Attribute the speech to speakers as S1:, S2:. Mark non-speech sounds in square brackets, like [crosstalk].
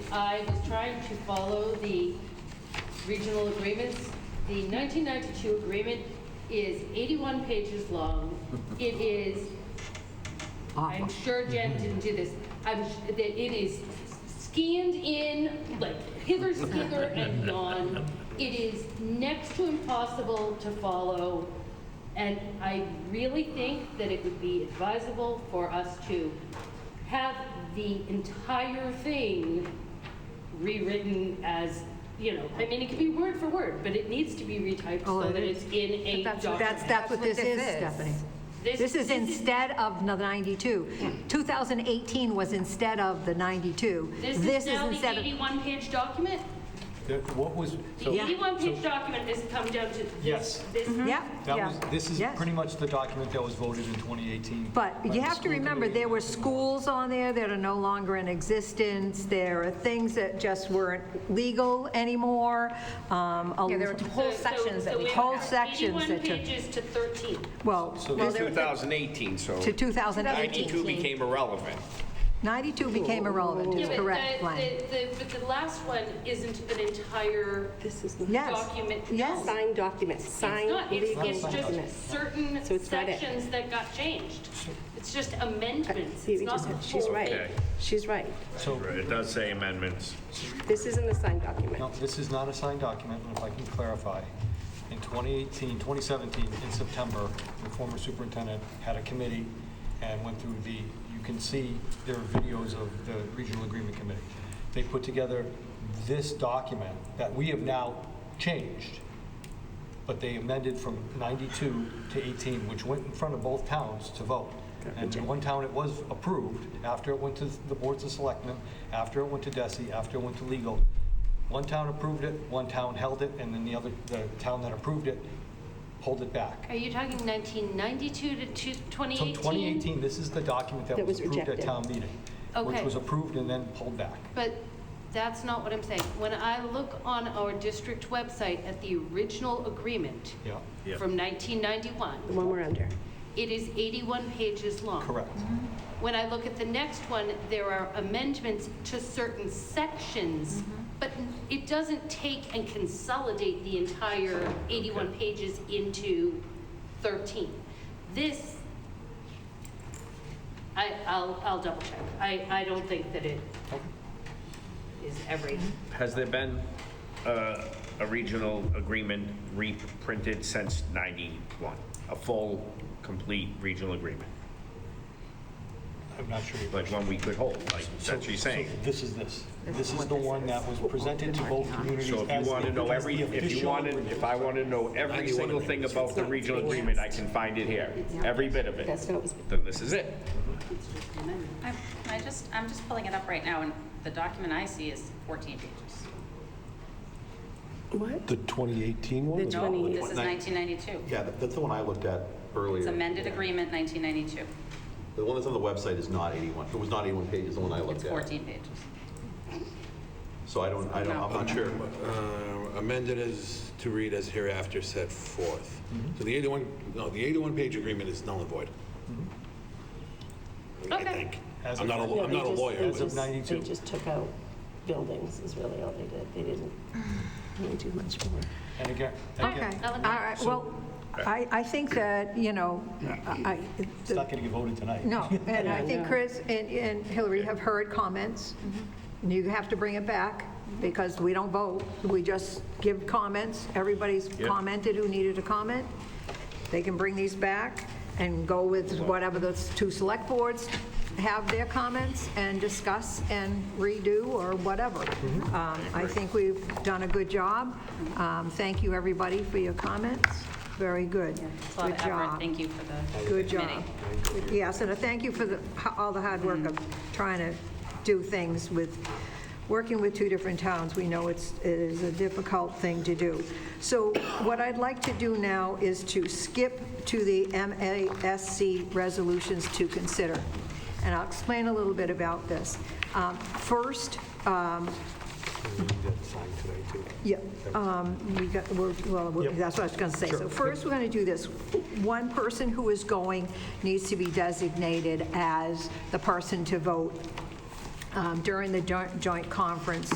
S1: I was trying to follow the regional agreements. The 1992 agreement is 81 pages long. It is, I'm
S2: Awful.
S1: sure Jen didn't do this, I'm, s- that it is scanned in, like hither, skither, and gone. It is next to impossible to follow, and I really think that it would be advisable for us to have the entire thing rewritten as, you know, I mean, it could be word for word, but it needs to be retyped
S2: Oh,
S1: so
S2: it
S1: that
S2: is.
S1: it's in
S3: But
S1: a
S3: that's what-
S1: document.
S2: That's, that's what this is, Stephanie.
S1: This-
S2: This
S1: this is-
S2: is instead of the 92. 2018 was instead of the 92.
S1: This is now the
S2: instead of
S1: 81-page document?
S4: That- What was,
S1: The
S4: so,
S2: Yeah.
S1: 81-page document has come down to
S4: Yes.
S1: this, this,
S2: Mm-hmm. Yep,
S4: that
S2: yeah.
S4: was, this is
S2: Yes.
S4: pretty much the document that was voted in 2018. by
S2: But you
S4: the
S2: have to
S4: school
S2: remember,
S4: committee.
S2: there were schools on there that are no longer in existence. There are things that just weren't legal anymore. um, a-
S3: Yeah, there were whole
S1: so- so-
S3: sections that
S1: so
S3: we.
S1: went
S2: Whole
S1: from
S2: sections that you-
S1: 81 pages to 13.
S2: Well,
S4: So
S2: well,
S4: this-
S2: there-
S5: 2018, so
S2: to 2018.
S5: 92 became irrelevant.
S2: 92 became irrelevant,
S1: Yeah,
S2: is
S1: but
S2: correct,
S1: the-
S2: Glenn.
S1: the- the- But the last one isn't an entire
S6: This is not
S2: Yes.
S1: document.
S2: Yes.
S6: signed documents,
S1: It's
S6: signed
S1: not, it's,
S6: legal
S1: it's just
S6: documents.
S1: certain
S6: So it's not it.
S1: sections that got changed. It's just amendments,
S6: See,
S1: it's
S6: we
S1: not
S6: just
S1: the
S6: said, she's
S1: whole thing.
S6: right. She's right.
S4: So,
S5: It does say amendments.
S6: This isn't a signed document.
S4: no, this is not a signed document, and if I can clarify, in 2018, 2017, in September, the former superintendent had a committee and went through the, you can see there are videos of the regional agreement committee. They put together this document that we have now changed. but they amended from 92 to 18, which went in front of both towns to vote. And in one town, it was approved, after it went to the boards of selectmen, after it went to DESI, after it went to legal. One town approved it, one town held it, and then the other, the town that approved it, pulled it back.
S1: Are you talking 1992 to two-
S4: So
S1: 2018?
S4: 2018, this is the document that
S6: That
S4: was
S6: was
S4: approved at
S6: rejected.
S4: town meeting, which
S1: Okay.
S4: was approved and then pulled back.
S1: But that's not what I'm saying. When I look on our district website at the original agreement
S4: Yeah,
S5: Yeah.
S1: from 1991,
S6: The one we're under.
S1: it is 81 pages long.
S4: correct.
S6: Mm-hmm.
S1: When I look at the next one, there are amendments to certain sections, but it doesn't take and consolidate the entire 81 pages into 13. This, I, I'll, I'll double check. I, I don't think that it is every,
S5: Has there been uh, a regional agreement reprinted since 91? A full, complete regional agreement?
S4: I'm not sure.
S5: Like one we could hold, like that's what you're saying?
S4: So This is this.
S3: This
S4: This
S3: is
S4: is
S3: what
S4: the
S3: this
S4: one
S3: is.
S4: that was presented to both communities
S5: So if
S4: as
S5: you
S4: the-
S5: want to know
S4: as
S5: every,
S4: the
S5: if you
S4: official
S5: wanted,
S4: agreement.
S5: if I want to know every single thing about the regional agreement, I can find it here, every bit of
S6: That's
S5: it.
S6: what it was.
S5: Then this is it.
S7: I'm, I just, I'm just pulling it up right now, and the document I see is 14 pages.
S6: What?
S8: The 2018 one?
S6: The
S8: Is-
S7: No,
S6: 20
S7: this is 1992.
S9: Yeah, that- that's the one I looked at earlier.
S7: It's amended agreement 1992.
S9: The one that's on the website is not 81, it was not 81 pages, the one I
S7: It's
S9: looked at.
S7: 14 pages.
S9: So I don't, I don't, I'm not sure.
S8: uh, Amended as, to read as hereafter set forth.
S4: Mm-hmm.
S8: So the 81, no, the 81-page agreement is null and void. I
S1: Okay.
S8: think.
S4: Mm-hmm. As
S8: I'm
S4: of
S8: not a,
S6: No,
S8: law- I'm
S6: they
S8: not a
S6: just-
S8: lawyer.
S6: they
S4: As of
S6: just-
S4: 92.
S6: They just took out buildings is really all they did. They [sighs] didn't really do much more.
S4: And again,
S2: Okay,
S4: again,
S2: all right, well, I, I think that, you know, I,
S4: it's not going to get voted tonight.
S2: no, and I think Chris and and Hillary have heard comments. You have to bring it back, because we don't vote, we just give comments. Everybody's commented who needed a comment. They can bring these back and go with whatever the two select boards have their comments and discuss and redo or whatever. Um, I think we've done a good job. Um, Thank you, everybody, for your comments. Very good.
S7: It's a lot
S2: Good
S7: of effort.
S2: job.
S7: Thank you for the
S2: Good
S7: committee.
S2: job. Yes, and I thank you for the, all the hard work of trying to do things with, working with two different towns. We know it's, it is a difficult thing to do. So what I'd like to do now is to skip to the MASC resolutions to consider. And I'll explain a little bit about this. Um, First, yeah, um, we got, we're- well, we- that's what I was going to say. So first, we're going to do this. One person who is going needs to be designated as the person to vote um, during the joint joint conference